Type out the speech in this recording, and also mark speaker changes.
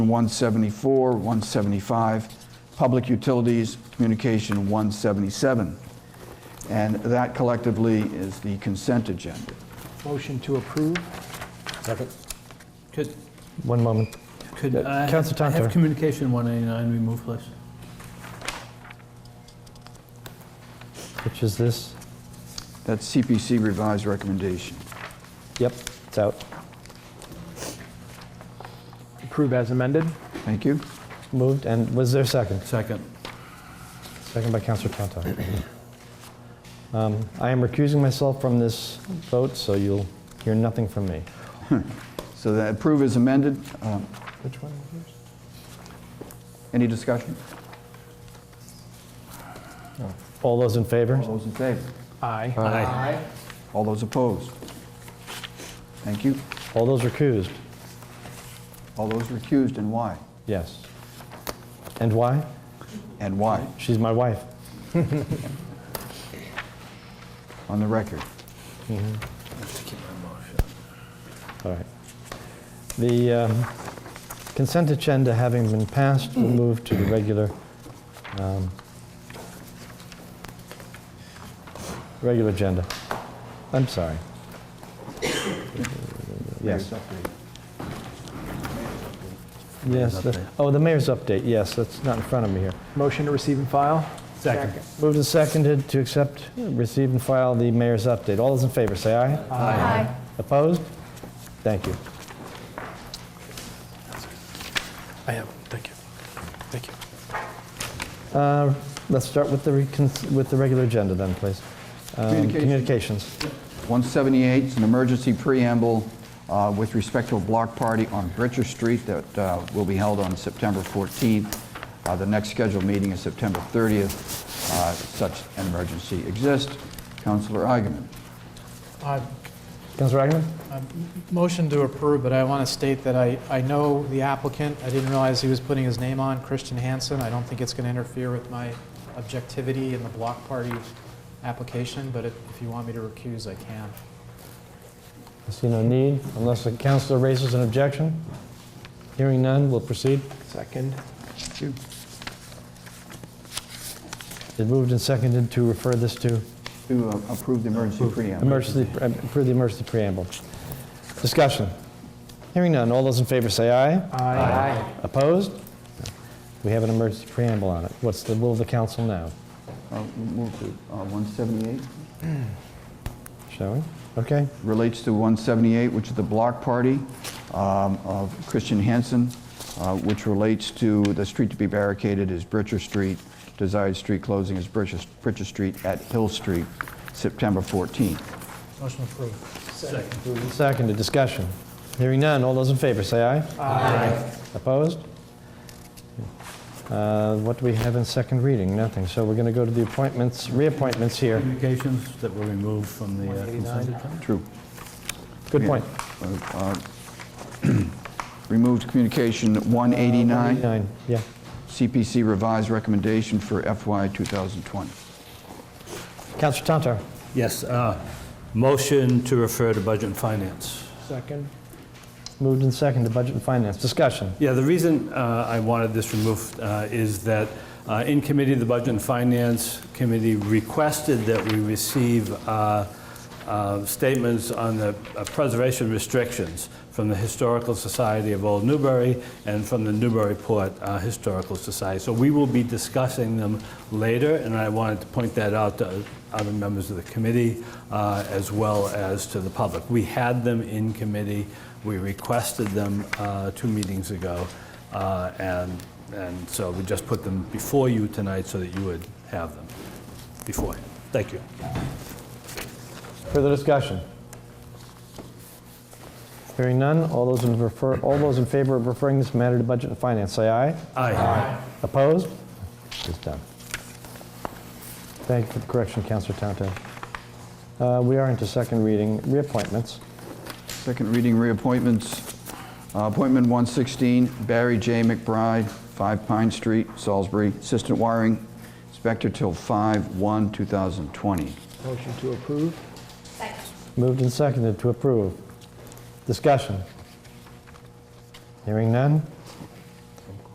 Speaker 1: 174, 175, Public Utilities, Communication 177. And that collectively is the consent agenda.
Speaker 2: Motion to approve?
Speaker 3: Second.
Speaker 4: Could,
Speaker 5: One moment.
Speaker 4: could
Speaker 5: Yeah,
Speaker 4: I
Speaker 5: Council
Speaker 4: I have
Speaker 5: Tantar.
Speaker 4: communication 189 removed, please?
Speaker 5: Which is this?
Speaker 1: That's CPC revised recommendation.
Speaker 5: Yep, it's out.
Speaker 2: Approve as amended?
Speaker 1: Thank you.
Speaker 5: Moved, and was there a second?
Speaker 4: Second.
Speaker 5: Second by Councilor Tantar. Um, I am recusing myself from this vote, so you'll hear nothing from me.
Speaker 1: So that approve is amended. Um,
Speaker 5: Which one?
Speaker 1: Any discussion?
Speaker 5: All those in favor?
Speaker 1: All those in favor?
Speaker 2: Aye.
Speaker 1: All those opposed? Thank you.
Speaker 5: All those recused?
Speaker 1: All those recused and why?
Speaker 5: Yes. And why?
Speaker 1: And why?
Speaker 5: She's my wife.
Speaker 1: On the record.
Speaker 5: All right. The um, consent agenda having been passed, we'll move to the regular, um, regular agenda. I'm sorry. Yes, yes. the- Oh, the mayor's update, yes, that's not in front of me here.
Speaker 2: Motion to receive and file? Second.
Speaker 5: Moved and seconded to accept, receive and file the mayor's update. All those in favor, say aye.
Speaker 6: Aye.
Speaker 5: Opposed? Thank you.
Speaker 3: I have, thank you. Thank you.
Speaker 5: Uh, Let's start with the, recon- with the regular agenda then, please. Um,
Speaker 1: Communications.
Speaker 5: Communications.
Speaker 1: 178 is an emergency preamble uh, with respect to a block party on Britcher Street that uh, will be held on September 14th. Uh, The next scheduled meeting is September 30th. Uh, Such an emergency exists. Counselor Eigenman.
Speaker 7: Uh,
Speaker 5: Councilor Agaman?
Speaker 7: Motion to approve, but I want to state that I, I know the applicant. I didn't realize he was putting his name on, Christian Hansen. I don't think it's going to interfere with my objectivity in the block party application, but if if you want me to recuse, I can.
Speaker 5: I see no need, unless the councilor raises an objection. Hearing none, we'll proceed.
Speaker 2: Second.
Speaker 5: It moved and seconded to refer this to
Speaker 1: To uh, approve the emergency preamble.
Speaker 5: emergency, uh, for the emergency preamble. Discussion. Hearing none, all those in favor say aye.
Speaker 2: Aye.
Speaker 5: Opposed? We have an emergency preamble on it. What's the will of the council now?
Speaker 1: Uh, we'll Move to uh, 178.
Speaker 5: Shall we? Okay.
Speaker 1: relates to 178, which is the block party um, of Christian Hansen, uh, which relates to the street to be barricaded is Britcher Street, desired street closing is Britcher Britcher Street at Hill Street, September 14th.
Speaker 7: Motion approved.
Speaker 5: Moved and Seconded, discussion. Hearing none, all those in favor, say aye. Aye. Opposed? Uh, What do we have in second reading? Nothing, so we're going to go to the appointments, reappointments here.
Speaker 4: Communications that were removed from the uh, consent agenda?
Speaker 1: True.
Speaker 5: Good point.
Speaker 1: Removed communication 189,
Speaker 5: Nine, yeah.
Speaker 1: CPC revised recommendation for FY 2020.
Speaker 5: Counselor Tantar,
Speaker 4: Yes, uh, motion to refer to Budget and Finance.
Speaker 2: Second.
Speaker 5: moved and seconded, Budget and Finance, discussion.
Speaker 4: Yeah, the reason uh, I wanted this removed uh, is that uh, in committee, the Budget and Finance Committee requested that we receive uh, uh, statements on the uh, preservation restrictions from the Historical Society of Old Newbury and from the Newburyport uh, Historical Society. So we will be discussing them later, and I wanted to point that out to other members of the committee uh, as well as to the public. We had them in committee. We requested them uh, two meetings ago, uh, and, and so we just put them before you tonight so that you would have them before. Thank you.
Speaker 5: Further discussion? Hearing none, all those in refer, all those in favor of referring this matter to Budget and Finance, say aye.
Speaker 4: Aye.
Speaker 5: Opposed? It's done. Thank you for the correction, Counselor Tantar. Uh, We are into second reading, reappointments.
Speaker 1: Second reading reappointments. Uh, Appointment 116, Barry J. McBride, 5 Pine Street, Salisbury, Assistant Wiring Inspector till 5/1/2020.
Speaker 2: Motion to approve?
Speaker 6: Second.
Speaker 5: Moved and seconded to approve. Discussion. Hearing none.